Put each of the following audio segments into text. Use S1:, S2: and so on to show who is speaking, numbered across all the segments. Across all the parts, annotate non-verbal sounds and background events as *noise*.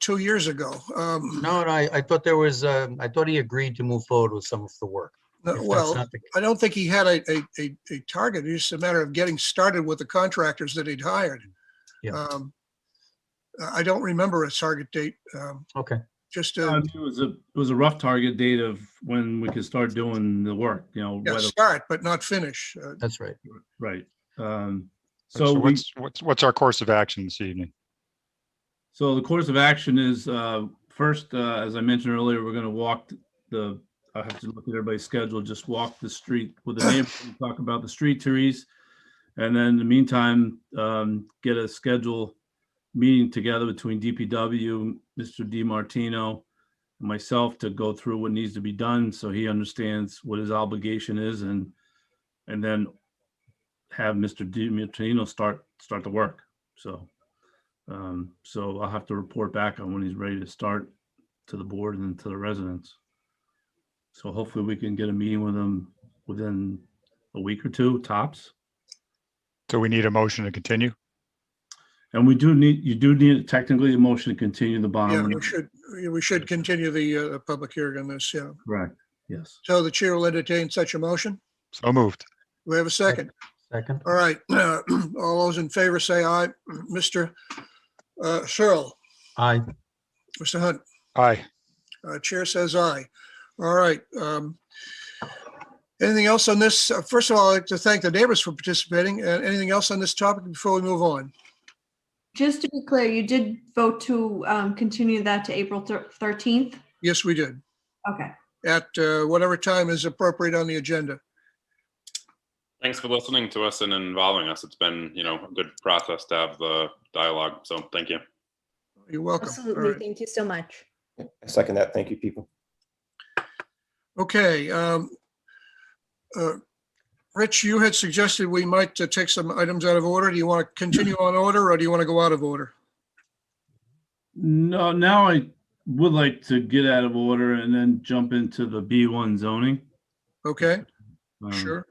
S1: two years ago. Um,
S2: No, no, I, I thought there was, um, I thought he agreed to move forward with some of the work. If that's
S1: Uh, Well,
S2: not the-
S1: I don't think he had a, a, a, a target. It's just a matter of getting started with the contractors that he'd hired.
S2: Yeah.
S1: Um, I I don't remember a target date. Um,
S2: Okay,
S1: just,
S3: Yeah, I
S1: uh,
S3: mean, It was a, it was a rough target date of when we could start doing the work, you know,
S1: yeah,
S3: whether-
S1: start, but not finish. Uh,
S2: that's right.
S3: right. Um,
S4: So
S3: so we,
S4: what's, what's, what's our course of action this evening?
S3: so the course of action is, uh, first, uh, as I mentioned earlier, we're gonna walk the, I have to look at everybody's schedule, just walk the street with the neighbors, and talk about the street trees. And then in the meantime, um, get a schedule meeting together between DPW, Mr. Di Martino, myself to go through what needs to be done so he understands what his obligation is and and then have Mr. DiMartino start start the work. So um so I'll have to report back on when he's ready to start to the board and to the residents. So hopefully we can get a meeting with him within a week or two tops.
S4: So we need a motion to continue?
S3: And we do need you do need technically a motion to continue the
S1: Yeah,
S3: bond.
S1: we should, we should continue the, uh, the public hearing on this, yeah.
S3: Correct. Yes.
S1: So the chair will entertain such a motion.
S4: So moved.
S1: Do We have a second.
S2: Second,
S1: All right, *clears throat* all those in favor say aye. Mr. uh, Searle,
S2: aye,
S1: Mr. Hunt,
S4: Aye.
S1: uh, Chair says aye. All right. um, Anything else on this? Uh, First of all, I'd like to thank the neighbors for participating. Uh, Anything else on this topic before we move on?
S5: Just to be clear, you did vote to um, continue that to April thir- 13th?
S1: Yes, we did,
S5: Okay.
S1: at uh, whatever time is appropriate on the agenda.
S6: Thanks for listening to us and involving us. It's been, you know, a good process to have the dialogue. So thank you.
S1: You're welcome. All
S7: Absolutely.
S1: right.
S7: Thank you so much.
S8: I second that. Thank you, people.
S1: Okay. um, uh, Rich, you had suggested we might uh, take some items out of order. Do you want to continue on order or do you want to go out of order?
S3: No, now I would like to get out of order and then jump into the B1 zoning.
S1: Okay,
S3: um,
S1: sure.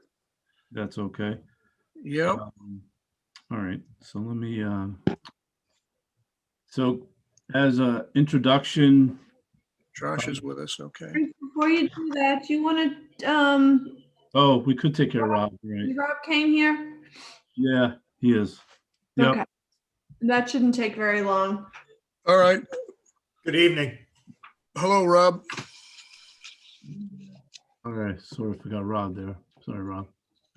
S3: That's okay.
S1: Yeah,
S3: Um, All right, so let me, um, so as a introduction,
S1: Josh is with us. Okay.
S5: Before you do that, you want to, um,
S3: oh, we could take care of Rob, right?
S5: Rob came here?
S3: Yeah, he is. Yep.
S5: Okay. That shouldn't take very long.
S1: All right.
S9: Good evening.
S1: Hello, Rob.
S3: All right, sorry, forgot Rob there. Sorry, Rob.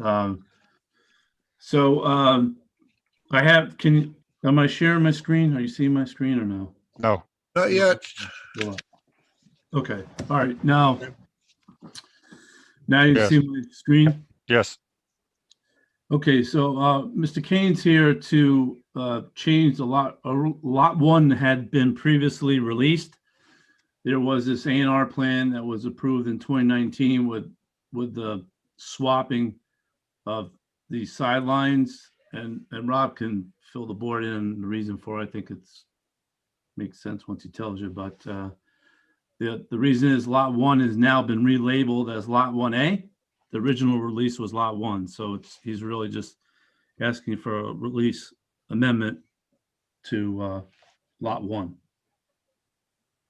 S3: Um, so, um, I have, can, you am I sharing my screen? Are you seeing my screen or no?
S4: No.
S1: Not yet.
S3: Yeah. Okay, all right, now. Now you
S4: Yes.
S3: see my screen?
S4: Yes.
S3: Okay, so, uh, Mr. Kane's here to, uh, change the lot, uh, lot one had been previously released. There was this A and R plan that was approved in twenty nineteen with, with the swapping of the sidelines and, and Rob can fill the board in the reason for, it. I think it's makes sense once he tells you, but, uh, the, the reason is lot one has now been relabeled as lot one A. The original release was lot one, so it's, he's really just asking for a release amendment to, uh, lot one.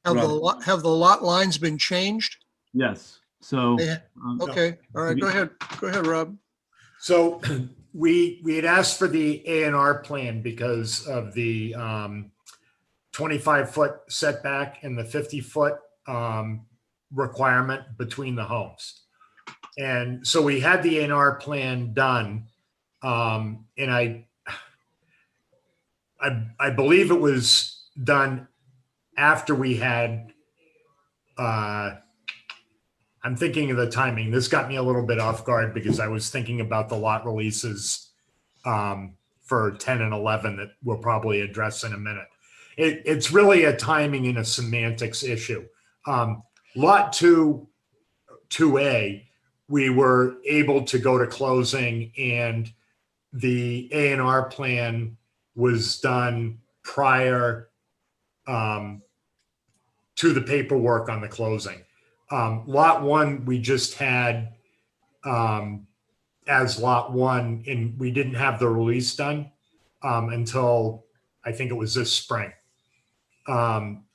S1: Have the,
S3: Rob.
S1: lot- have the lot lines been changed?
S3: Yes, so.
S1: They-
S3: um,
S1: Okay, all right, go ahead. Go ahead, Rob.
S9: So *clears throat* we, we had asked for the A and R plan because of the um, 25-foot setback and the 50-foot um, requirement between the homes. And so we had the A and R plan done. um, And I, I, I believe it was done after we had, uh, I'm thinking of the timing. This got me a little bit off guard because I was thinking about the lot releases um, for 10 and 11 that we'll probably address in a minute. It, it's really a timing and a semantics issue. Um, lot two, 2A, we were able to go to closing and the A and R plan was done prior um, to the paperwork on the closing. Um, lot one, we just had, um, as lot one, and we didn't have the release done, um, until I think it was this spring. Um,